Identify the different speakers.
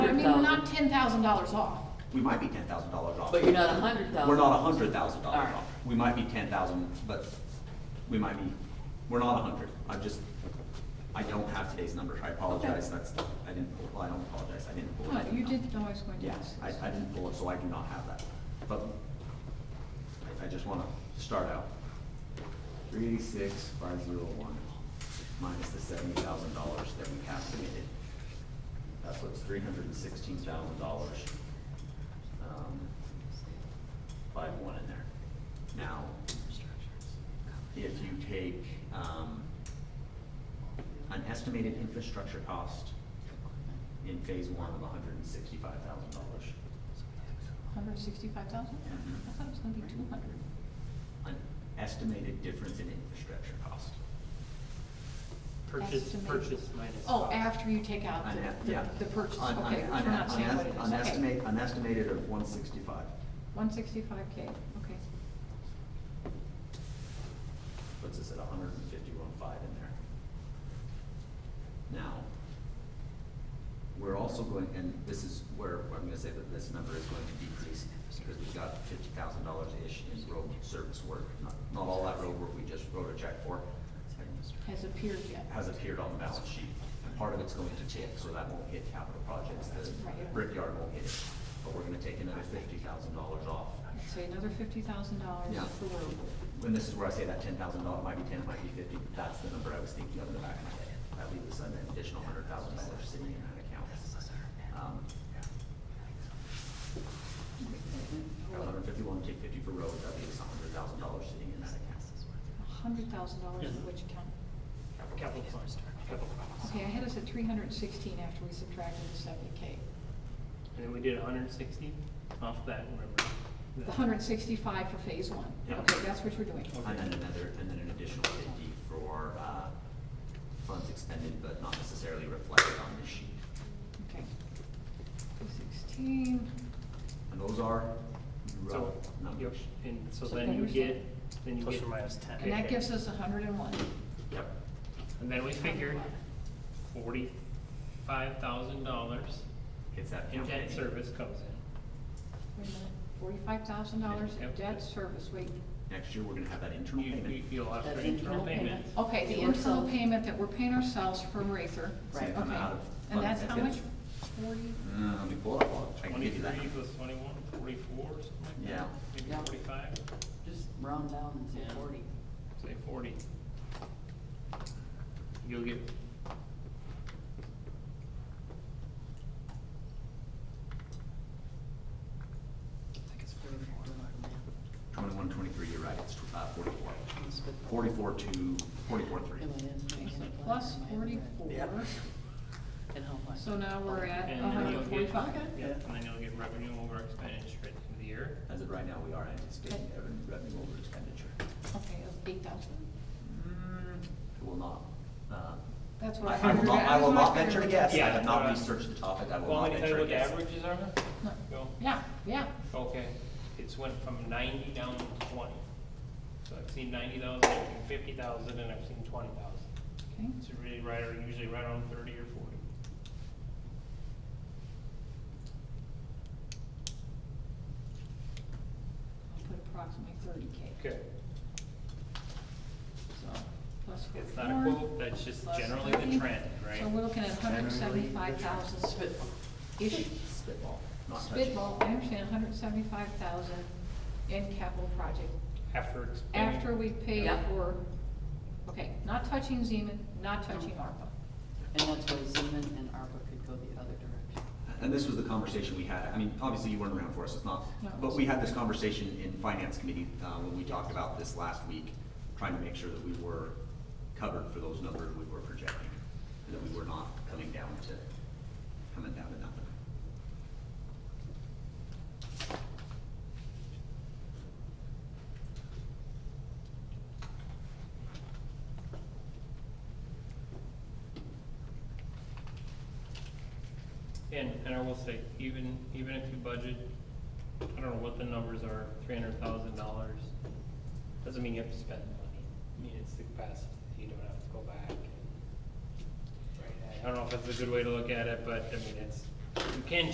Speaker 1: ten thousand dollars off.
Speaker 2: We might be ten thousand dollars off.
Speaker 3: But you're not a hundred thousand.
Speaker 2: We're not a hundred thousand
Speaker 3: All
Speaker 2: dollars
Speaker 3: right.
Speaker 2: off. We might be ten thousand, but we might be, we're not a hundred. I just, I don't have today's numbers. I apologize. That's, I didn't pull, well, I don't apologize. I didn't pull
Speaker 1: Huh,
Speaker 2: it.
Speaker 1: you did know I was going to
Speaker 2: Yes,
Speaker 1: ask.
Speaker 2: I, I didn't pull it, so I do not have that. But I, I just wanna start out. Three eighty-six, five zero one, minus the seventy thousand dollars that we have committed. That puts three hundred and sixteen thousand dollars. um, Five one in there. Now, if you take, um, an estimated infrastructure cost in phase one of hundred and sixty-five thousand dollars.
Speaker 1: Hundred sixty-five thousand?
Speaker 2: Mhm.
Speaker 1: I thought it was gonna be two hundred.
Speaker 2: An estimated difference in infrastructure cost.
Speaker 4: Purchase,
Speaker 1: Estimate.
Speaker 4: purchase minus.
Speaker 1: Oh,
Speaker 4: cost.
Speaker 1: after you take out
Speaker 2: An e-
Speaker 1: the,
Speaker 2: yeah.
Speaker 1: the- the purchase,
Speaker 2: An- an-
Speaker 1: okay, which
Speaker 2: an-
Speaker 1: we're not saying
Speaker 2: an-
Speaker 1: what it
Speaker 2: An
Speaker 1: is, okay.
Speaker 2: estimate, an estimated of one sixty-five,
Speaker 1: One sixty-five K, okay.
Speaker 2: puts us at a hundred and fifty-one five in there. Now, we're also going, and this is where I'm gonna say that this number is going to decrease, because we've got fifty thousand dollars-ish in road service work, not, not all that road work we just wrote a check for.
Speaker 1: Has appeared yet.
Speaker 2: has appeared on the balance sheet. And part of it's going to TIF, so that won't hit capital projects, the
Speaker 1: Right.
Speaker 2: brickyard won't hit it. But we're gonna take another fifty thousand dollars off.
Speaker 1: Let's say another fifty thousand dollars
Speaker 2: Yeah.
Speaker 1: for road.
Speaker 2: And this is where I say that ten thousand dollar, might be ten, might be fifty, but that's the number I was thinking of in the back of my head. That leaves us an additional hundred thousand dollars sitting in that account. Um, Hundred and fifty-one, take fifty for roads, that leaves a hundred thousand dollars sitting in that account.
Speaker 1: A hundred thousand dollars in which account?
Speaker 4: Capital fund, capital costs.
Speaker 1: Okay, I had us at three hundred and sixteen after we subtracted the seventy K.
Speaker 4: And then we did hundred and sixty off that, remember?
Speaker 1: The hundred and sixty-five for phase one.
Speaker 2: Yeah.
Speaker 1: Okay, that's what you're doing.
Speaker 2: And then another, and then an additional fifty for, uh, funds expended but not necessarily reflected on this sheet.
Speaker 1: Okay. Two sixteen,
Speaker 2: And those are rough
Speaker 4: So, yep,
Speaker 2: numbers.
Speaker 4: and so
Speaker 1: So
Speaker 4: then you
Speaker 1: then-
Speaker 4: get, then you get.
Speaker 5: Plus or minus 10.
Speaker 1: and that
Speaker 4: Okay.
Speaker 1: gives us hundred and one.
Speaker 2: Yep.
Speaker 4: And then we figured forty-five thousand dollars
Speaker 2: Hits that.
Speaker 4: in
Speaker 2: count,
Speaker 4: debt
Speaker 2: Penny.
Speaker 4: service comes in.
Speaker 1: Wait a minute, forty-five thousand dollars in
Speaker 4: Yep.
Speaker 1: debt service, wait.
Speaker 2: Next year, we're gonna have that internal
Speaker 4: You, you,
Speaker 2: payment.
Speaker 4: you'll have
Speaker 3: That's
Speaker 4: for
Speaker 3: internal
Speaker 4: internal
Speaker 3: payment.
Speaker 4: payment.
Speaker 1: Okay, the
Speaker 3: It works
Speaker 1: internal
Speaker 3: out.
Speaker 1: payment that we're paying ourselves for Rather.
Speaker 2: It's gonna
Speaker 3: Right.
Speaker 2: come
Speaker 1: Okay.
Speaker 2: out of
Speaker 1: And
Speaker 2: fund-
Speaker 1: that's how much?
Speaker 2: it.
Speaker 1: Forty?
Speaker 2: Uh, let me pull it up, I'll- I can give you that.
Speaker 4: Twenty-three plus twenty-one, forty-four, something like that.
Speaker 2: Yeah.
Speaker 4: Maybe
Speaker 3: Yeah.
Speaker 4: forty-five,
Speaker 3: Just round down and
Speaker 4: Yeah.
Speaker 3: say forty.
Speaker 4: say forty. You'll get
Speaker 2: Twenty-one, twenty-three, you're right, it's tw- uh, forty-four.
Speaker 3: Let's put-
Speaker 2: Forty-four to, forty-four three.
Speaker 3: Am I in? Am I in?
Speaker 1: Plus
Speaker 3: Am I in?
Speaker 1: forty-four,
Speaker 2: Yep.
Speaker 3: And how much?
Speaker 1: so now we're at
Speaker 4: And then
Speaker 1: hundred
Speaker 4: you'll
Speaker 1: and
Speaker 4: get,
Speaker 1: Uh-huh. forty-five?
Speaker 4: yeah, and then you'll get revenue over expenditure at the end of the year.
Speaker 2: As of right now, we are anticipating
Speaker 1: Okay.
Speaker 2: revenue- revenue over expenditure.
Speaker 1: Okay, eight thousand?
Speaker 2: I will not, uh.
Speaker 1: That's what I
Speaker 2: I I will
Speaker 1: figured.
Speaker 2: not, I will
Speaker 1: That's
Speaker 2: not
Speaker 1: what I
Speaker 2: venture to
Speaker 1: figured.
Speaker 2: guess, I
Speaker 4: Yeah,
Speaker 2: have not
Speaker 4: alright.
Speaker 2: researched the topic, I will
Speaker 4: Well,
Speaker 2: not
Speaker 4: let me tell
Speaker 2: venture
Speaker 4: you
Speaker 2: to
Speaker 4: what the
Speaker 2: guess.
Speaker 4: averages are.
Speaker 1: No.
Speaker 4: Go.
Speaker 1: Yeah, yeah,
Speaker 4: Okay, it's went from ninety down to twenty. So I've seen ninety thousand, I've seen fifty thousand, and I've seen twenty thousand.
Speaker 1: okay.
Speaker 4: So really, right, are usually right around thirty or forty.
Speaker 1: I'll put approximately thirty K,
Speaker 4: Okay.
Speaker 1: so plus forty-four.
Speaker 4: It's not a quote, that's just
Speaker 1: plus
Speaker 4: generally
Speaker 1: 30.
Speaker 4: the trend, right?
Speaker 1: So we're looking at hundred and seventy-five thousand.
Speaker 3: Spitball.
Speaker 1: Ish.
Speaker 2: Spitball, not touching.
Speaker 1: Spitball, I understand hundred and seventy-five thousand in capital project,
Speaker 4: After explaining.
Speaker 1: after we pay
Speaker 3: Yeah.
Speaker 1: for, okay, not touching Zeman, not touching ARPA.
Speaker 3: And that's why Zeman and ARPA could go the other direction.
Speaker 2: And this was the conversation we had, I mean, obviously you weren't around for us, it's not,
Speaker 1: No.
Speaker 2: but we had this conversation in finance committee, uh, when we talked about this last week, trying to make sure that we were covered for those numbers we were projecting, and that we were not coming down to, coming down to nothing.
Speaker 4: And, and I will say, even, even if you budget, I don't know what the numbers are, three hundred thousand dollars, doesn't mean you have to spend the money. I mean, it's the capacity, you don't have to go back and. I don't know if that's a good way to look at it, but I mean, it's, you can